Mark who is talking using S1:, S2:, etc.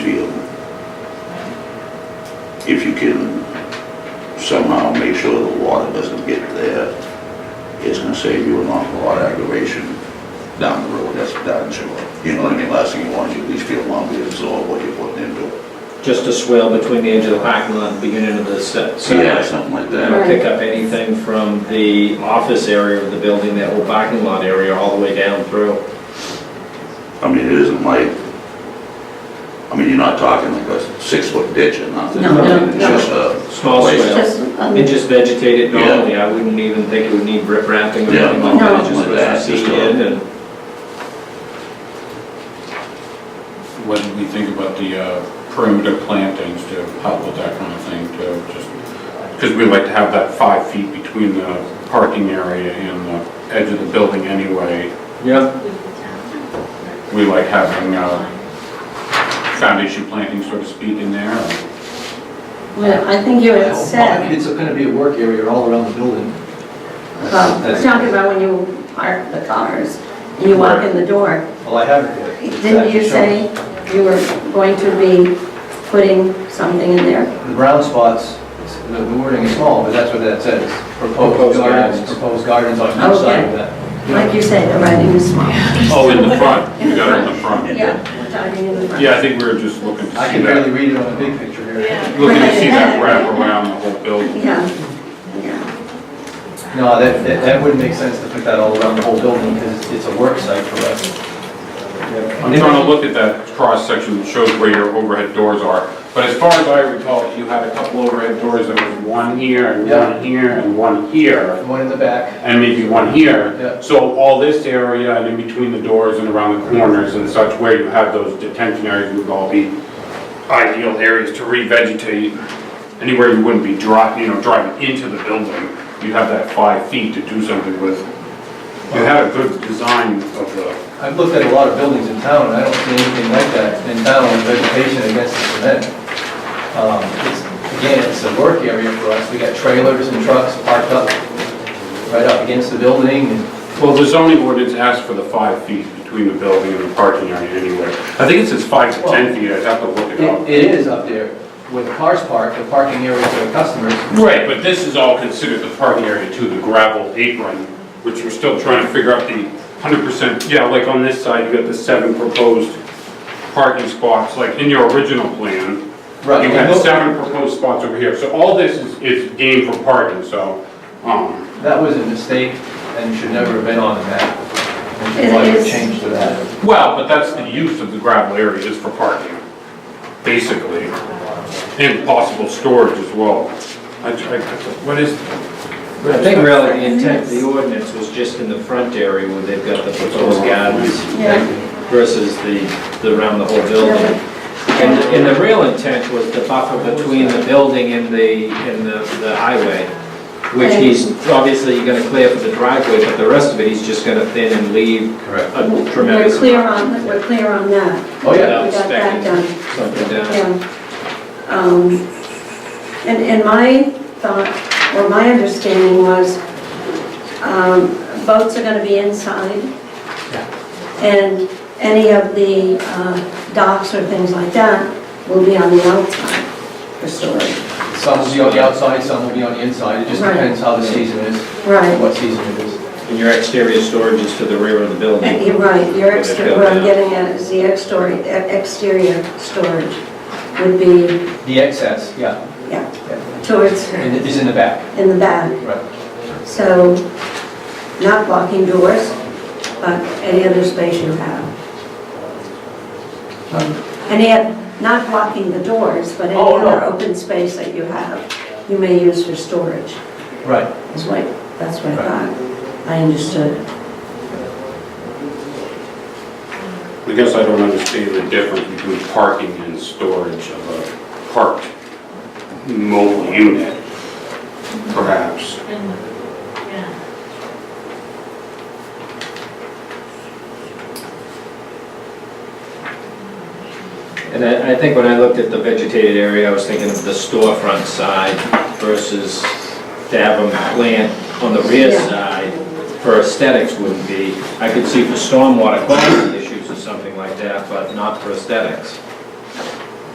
S1: if you can somehow make sure the water doesn't get there, it's gonna save you an awful lot of aggravation down the road, that's darn sure. You know what I mean, last thing you want is you at least feel lumpy, absorb what you're putting into it.
S2: Just a swell between the edge of the parking lot and the beginning of the set.
S1: Yeah, something like
S2: I
S1: that.
S2: don't pick up anything from the office area of the building, that whole parking lot area, all the way down through.
S1: I mean, it isn't like, I mean, you're not talking like a six-foot ditch or nothing.
S3: No, no,
S1: It's
S3: no.
S1: just a.
S2: Small
S1: place.
S2: swale.
S3: Just, um,
S2: And just vegetate it
S1: Yeah.
S2: normally, I wouldn't even think it would need rip wrapping or
S1: Yeah,
S2: anything like that,
S3: no.
S2: just
S1: Like that,
S2: let it
S1: just
S2: seed
S1: a-
S2: in and.
S4: What did we think about the uh, perimeter plantings to help with that kind of thing to just, because we like to have that five feet between the parking area and the edge of the building anyway.
S2: Yeah,
S4: We like having uh, foundation planting, so to speak, in there.
S3: Well, I think you had
S5: I mean,
S3: said,
S5: It's gonna be a work area all around the building.
S3: well, talking about when you park the cars and you walk in the door,
S5: Well, I haven't yet.
S3: didn't you say you were going to be putting something in there?
S5: The brown spots, it's- the the wording is small, but that's what that says.
S2: Proposed
S5: Proposed gardens,
S2: gardens.
S5: proposed gardens on each side of that.
S3: Like you say, the writing is small.
S4: Oh, in the front, you got it in the front.
S3: Yeah, we're talking in the front.
S4: Yeah, I think we were just looking to
S5: I
S4: see
S5: can barely
S4: that,
S5: read it on the big picture here.
S4: looking to see that wrap around the whole building.
S3: Yeah, yeah.
S5: No, that, that that wouldn't make sense to put that all around the whole building because it's a work site for us.
S4: I'm trying to look at that cross-section that shows where your overhead doors are, but as far as I recall, you had a couple overhead doors, there was one here, and
S5: Yeah.
S4: one here, and one here,
S5: The one in the back,
S4: and maybe one here.
S5: Yeah.
S4: So all this area, and in between the doors and around the corners and such, where you have those detention areas would all be ideal areas to revegetate. Anywhere you wouldn't be driving, you know, driving into the building, you have that five feet to do something with. You had a good design of the
S5: I've looked at a lot of buildings in town and I don't see anything like that in town with vegetation against the cement. Um, it's- Again, it's a work area for us. We got trailers and trucks parked up right up against the building and
S4: Well, the zoning ordinance asks for the five feet between the building and the parking area anyway. I think it says five to 10 feet, I'd have to look it
S5: It
S4: up.
S5: it is up there, where the cars park, the parking area for the customers.
S4: Right, but this is all considered the parking area too, the gravel apron, which we're still trying to figure out the 100%. Yeah, like on this side, you got the seven proposed parking spots, like in your original plan.
S5: Right.
S4: You had seven proposed spots over here, so all this is, is game for parking, so, um,
S5: That was a mistake and should never have been on the map. And should
S3: It
S5: probably have
S3: is.
S5: changed to that.
S4: Well, but that's the use of the gravel area is for parking, basically, and possible storage as well. I- I- What is,
S2: I think really the intent of the ordinance was just in the front area where they've got the proposed gardens
S3: Yeah,
S2: versus the, the, around the whole building. And, and the real intent was the buffer between the building and the, and the, the highway, which he's obviously gonna clear for the driveway, but the rest of it, he's just gonna thin and leave
S5: Correct.
S2: a
S3: we're
S2: tremendous
S3: clear on, we're clear on that.
S5: Oh, yeah.
S2: Yeah.
S3: We got that done.
S2: something down.
S3: Yeah. Um, And, and my thought, or my understanding was, um, boats are gonna be inside, and any of the uh, docks or things like that will be on the outside for storage.
S5: Some will be on the outside, some will be on the inside. It just
S3: Right.
S5: depends how the season is,
S3: Right.
S5: what season it is.
S2: And your exterior storage is to the rear of the
S3: And
S2: building.
S3: You're right, your
S2: Where they
S3: exterior,
S2: go
S3: what I'm
S2: down.
S3: getting at is the exterior, e-, exterior storage would be,
S5: The excess, yeah,
S3: yeah, towards,
S5: and it is in the back.
S3: in the back.
S5: Right.
S3: So, not blocking doors, but any other space you have. And yet, not blocking the doors, but any
S5: Um, Oh, no.
S3: other open space that you have, you may use for storage.
S5: Right.
S3: That's what, that's what I thought, I understood.
S4: I guess I don't understand the difference between parking and storage of a parked mobile unit, perhaps.
S2: And I, I think when I looked at the vegetated area, I was thinking of the storefront side versus to have them plant on the rear
S3: Yeah.
S2: side for aesthetics wouldn't be, I could see for stormwater quality issues or something like that, but not for aesthetics.